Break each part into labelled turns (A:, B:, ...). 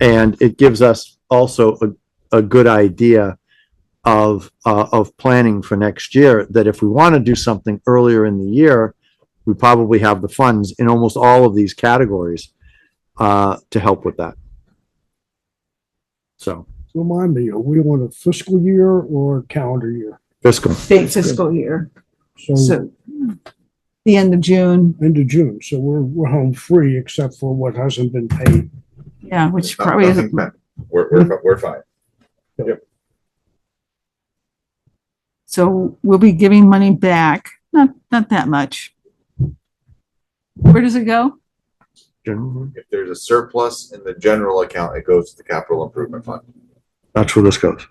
A: And it gives us also a, a good idea of, uh, of planning for next year, that if we want to do something earlier in the year, we probably have the funds in almost all of these categories, uh, to help with that. So
B: Remind me, are we on a fiscal year or a calendar year?
A: fiscal,
C: state fiscal year,
B: So
C: so the end of June,
B: end of June, so we're, we're home free except for what hasn't been paid.
C: yeah, which
D: No-
C: probably
D: nothing
C: isn't, Hmm.
D: meant. We're, we're, fi- we're fine.
C: so we'll be giving money back, not, not that much. Where does it go?
A: General,
D: If there's a surplus in the general account, it goes to the capital improvement fund.
A: that's where this goes.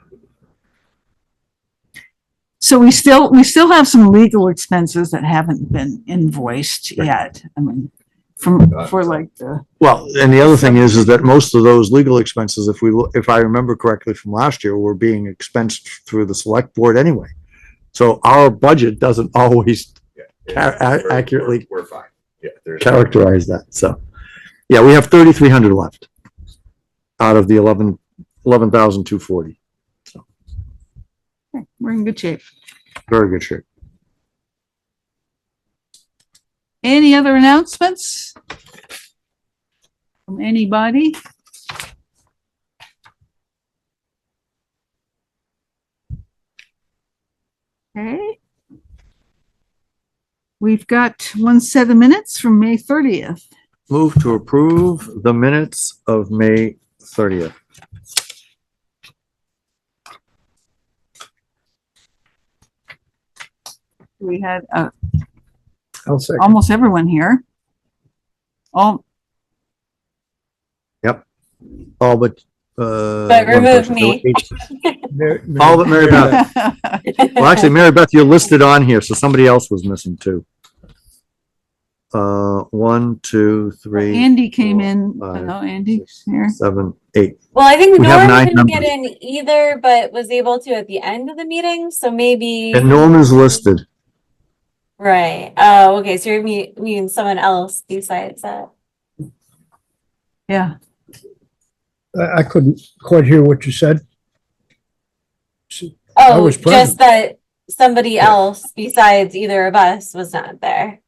C: So we still, we still have some legal expenses that haven't been invoiced
A: Right.
C: yet, I mean, from, for like the,
A: Well, and the other thing is, is that most of those legal expenses, if we, lo- if I remember correctly from last year, were being expensed through the select board anyway. So our budget doesn't always
D: Yeah.
A: Ca- a-
D: We're- we're-
A: accurately-
D: We're fine. Yeah. there's-
A: characterize that, so. Yeah, we have thirty-three hundred left out of the eleven, eleven thousand two forty.
C: we're in good shape.
A: Very good shape.
C: Any other announcements? From anybody? Okay. We've got one set of minutes from May thirtieth.
A: Move to approve the minutes of May thirtieth.
C: We had, uh,
B: I'll say.
C: almost everyone here. All,
A: All but, uh.
E: But
A: one
E: remove
A: person.
E: me.
A: All but Mary Beth. Well, actually, Mary Beth, you're listed on here, so somebody else was missing too. Uh, one, two, three,
C: Andy came in,
A: Five,
C: hello, Andy's here.
A: seven, eight.
E: Well, I think
A: We have
E: Norm
A: nine
E: couldn't get in either, but was able to at the end of the meeting. So maybe
A: And Norman's listed.
E: right. Oh, okay. So you're me- meaning someone else besides that.
C: Yeah,
B: I, I couldn't quite hear what you said. I
E: Oh,
B: was present.
E: just that somebody else besides either of us was not there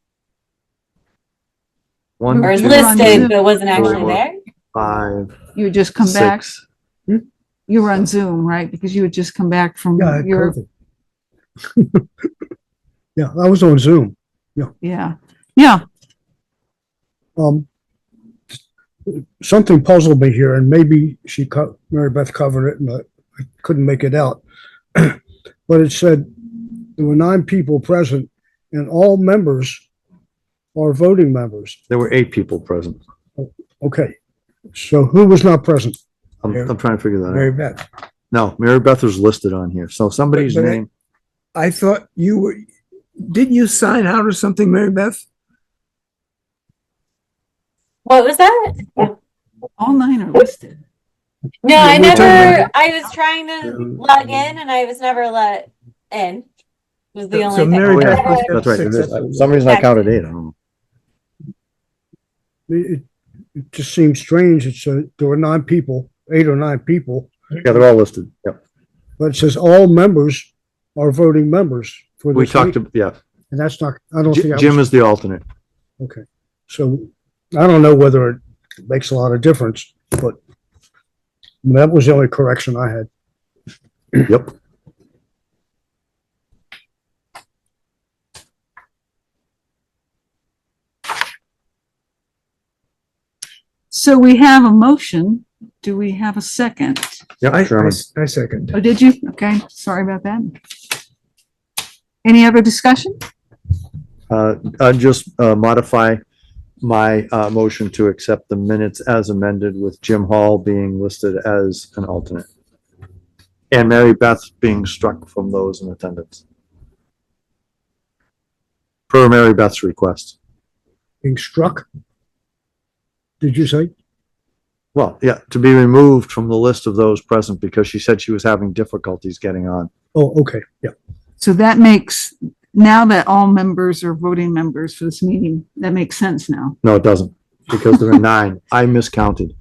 A: One,
E: or is
C: Two.
E: listed but wasn't
A: Four.
E: actually there.
A: five,
C: you had just come back.
A: six.
C: You were on Zoom, right? Because you had just come back from
B: Yeah,
C: your
B: COVID. Yeah, I was on Zoom.
C: Yeah, yeah,
B: Um, something puzzled me here and maybe she, co- Mary Beth covered it and I I couldn't make it out. But it said there were nine people present and all members are voting members.
A: There were eight people present.
B: Okay, so who was not present?
A: I'm, I'm trying to figure that out.
B: Mary Beth.
A: No, Mary Beth was listed on here, so somebody's
F: But- but I-
A: name,
F: I thought you were, didn't you sign out or something, Mary Beth?
E: What was that?
C: all nine are listed.
E: No,
F: Yeah,
E: I
F: we were talking
E: never. I was trying to
F: Um,
E: log in and I was never let in. Was the only
F: So
E: thing.
F: Mary
A: Oh, yeah.
F: Beth was
A: that's right.
F: six,
A: There is-
F: that's what-
A: For some reason I counted eight, I don't know.
B: It, it just seems strange. It's, uh, there were nine people, eight or nine people,
A: Yeah, they're all listed, yep.
B: but it says all members are voting members for
A: We
B: this
A: talked,
B: meeting.
A: to yeah,
B: And that's not, I don't think,
A: Ji-
B: I
A: Jim
B: was-
A: is the alternate.
B: okay. So I don't know whether it makes a lot of difference, but that was the only correction I had.
A: Yep.
C: So we have a motion. Do we have a second?
A: Yep, Sherman.
F: I, I second.
C: Oh, did you? Okay, sorry about that. Any other discussion?
A: Uh, I'd just uh, modify my uh, motion to accept the minutes as amended with Jim Hall being listed as an alternate. And Mary Beth being struck from those in attendance. Per Mary Beth's request.
B: Being struck? Did you say?
A: Well, yeah, to be removed from the list of those present because she said she was having difficulties getting on.
B: Oh, okay, yeah.
C: So that makes, now that all members are voting members for this meeting, that makes sense now.
A: No, it doesn't, because there are nine. I miscounted.